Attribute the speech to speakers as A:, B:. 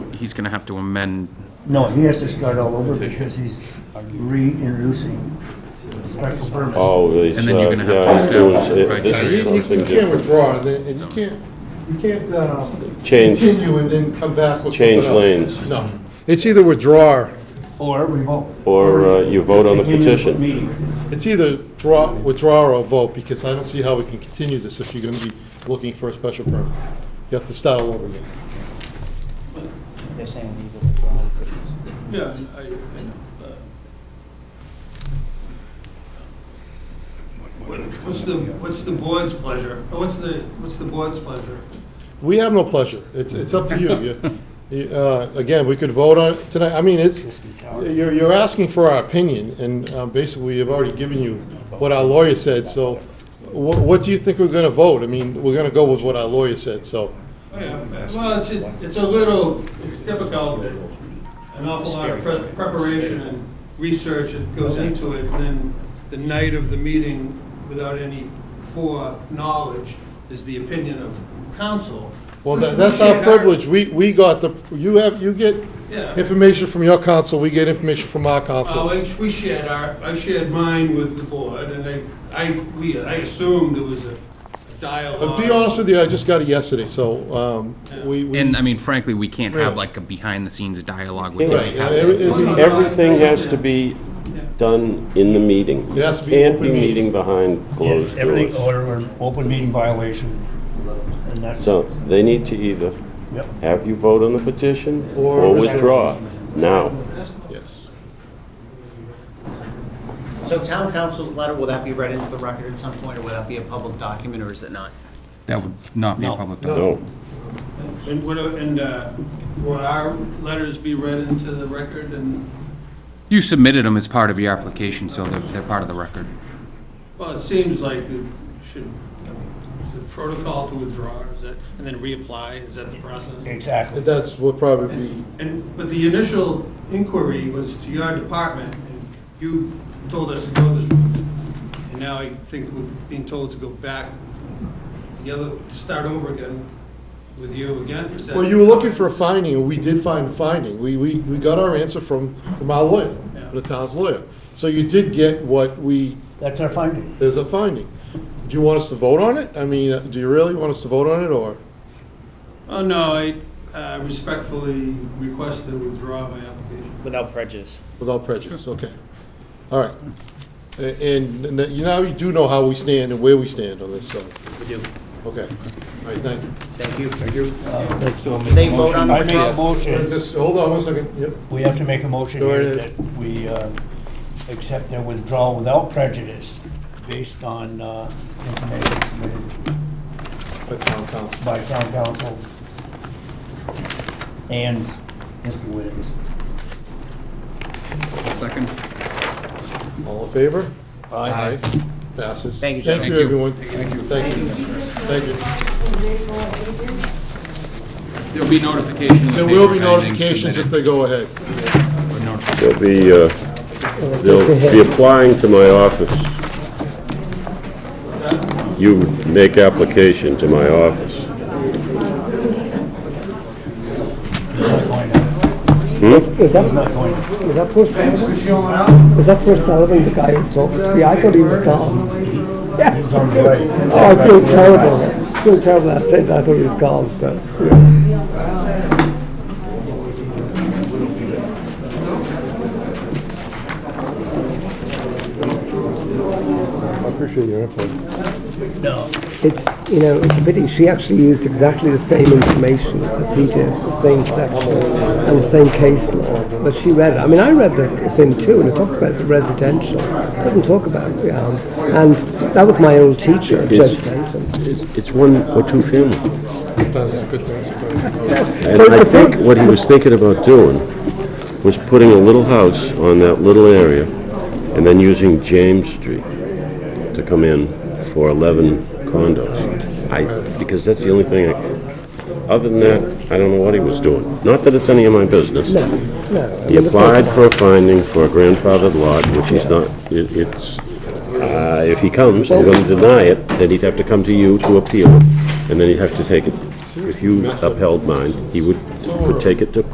A: he's gonna have to amend,
B: No, he has to start all over because he's reintroducing special permits.
C: Oh, it's, uh,
A: And
C: yeah,
A: then you're gonna have to
C: it's doing,
A: establish it,
C: it-
A: right?
C: this
A: So
C: is
D: You- You
C: something
D: you can't
C: different.
D: withdraw, and then- and you can't, you can't uh,
C: Change.
D: continue and then come back with something
C: Change
D: else.
C: lanes.
D: No. It's either withdraw,
B: Or revoke.
C: Or uh, you vote on the
B: Continue
C: petition.
B: meeting.
D: it's either draw, withdraw or vote, because I don't see how we can continue this if you're going to be looking for a special permit. You have to start all over again.
E: They're saying we need to withdraw the petition.
F: Yeah, I, I know. uh, What's the, what's the board's pleasure? Or What's the, what's the board's pleasure?
D: We have no pleasure. It's, it's up to you. You- you. uh, Again, we could vote on it tonight. I mean, it's, you're, you're asking for our opinion, and uh, basically, we've already given you what our lawyer said, so what, what do you think we're gonna vote? I mean, we're gonna go with what our lawyer said, so.
F: Oh, yeah, Well, it's, a- it's a little, it's difficult, that an awful lot of pre- preparation and research that goes into it, and then the night of the meeting, without any foreknowledge, is the opinion of council.
D: Well,
F: which
D: tha-
F: we
D: that's our
F: can't
D: privilege. We, we got the, you have, you get
F: Yeah.
D: information from your counsel, we get information from our
F: Well,
D: counsel.
F: Oh, I- we shared our, I shared mine with the board, and I, I, we, I assumed there was a
D: But
F: dialogue.
D: be honest with you, I just got it yesterday, so um, we, we.
A: and uh, I mean frankly, we can't have
D: Right.
A: like a behind-the-scenes dialogue with
C: Right.
A: Jay.
D: Yeah,
A: Howard.
D: it- it's-
C: Everything has to be done in the meeting.
D: It has to be
C: Can't
D: open
C: be
D: meeting.
C: meeting behind
B: Yes,
C: closed
B: everything
C: doors.
B: order or open meeting violation. And that's,
C: So they need to either
B: yep.
C: have you vote on the petition
D: Or-
C: or withdraw now.
D: Yes.
E: So town council's letter, will that be read into the record at some point, or will that be a public document, or is it not?
A: That would not be a public document.
C: No.
F: And would, and, uh, would our letters be read into the record, and,
A: You submitted them as part of your application, so they're, they're part of the record.
F: well, it seems like it should, is the protocol to withdraw, is that, and then reapply, is that the process?
B: Exactly.
D: And that's what probably be.
F: And, but the initial inquiry was to your department, and you told us to go this route. And now I think we're being told to go back, the other, to start over again with you again? Is that-
D: Well, you were looking for a finding, and we did find a finding. We, we, we got our answer from, from our lawyer,
F: Yeah.
D: the town's lawyer. So you did get what we,
B: That's our finding.
D: there's a finding. Do you want us to vote on it? I mean, uh, do you really want us to vote on it, or?
F: Oh, no, I uh, respectfully request to withdraw my application.
E: Without prejudice.
D: Without prejudice, okay. All right. A- And n- n- you now you do know how we stand and where we stand on this, so,
E: We do.
D: okay. All right, thank you.
E: Thank you. Thank you.
B: They
E: vote on the
B: Uh, I make a
E: withdrawal?
B: motion,
D: Just, hold on one second, yep.
B: we have to make a motion
D: Go
B: here
D: ahead.
B: that we uh, accept their withdrawal without prejudice based on uh, information submitted
D: By town council.
B: by town council and Mr. Witt.
A: Second?
D: All in favor?
A: Aye.
D: Passes.
E: Thank you,
D: Thank
A: Thank
D: you,
A: you.
D: everyone. Thank you. Thank you. Thank you.
A: There'll be notification.
D: There will be notifications if they go ahead.
C: They'll be, uh, they'll be applying to my office. You make application to my office.
G: Is that, is that poor Sullivan? Is that poor Sullivan, the guy who talked to me? I thought he was calm. Oh, I feel terrible. I feel terrible. I said that I thought he was calm, but, yeah.
D: I appreciate your input.
G: It's, you know, it's a pity. She actually used exactly the same information as he did, the same section and the same case law. But she read it. I mean, I read the thing too, and it talks about it's residential. It doesn't talk about, um, and that was my old teacher, Judge Fenton.
C: It's it's one or two family.
D: That's a good thing.
C: And I think what he was thinking about doing was putting a little house on that little area and then using James Street to come in for 11 condos. I, because that's the only thing, I- other than that, I don't know what he was doing. Not that it's any of my business.
G: No. I
C: He
G: mean, it's not
C: applied
G: about-
C: for a finding for a grandfathered lot, which he's not, it- it's, uh, if he comes, and you're gonna deny it, then he'd have to come to you to appeal, it, and then he'd have to take it, if you upheld mine, he would, would take it to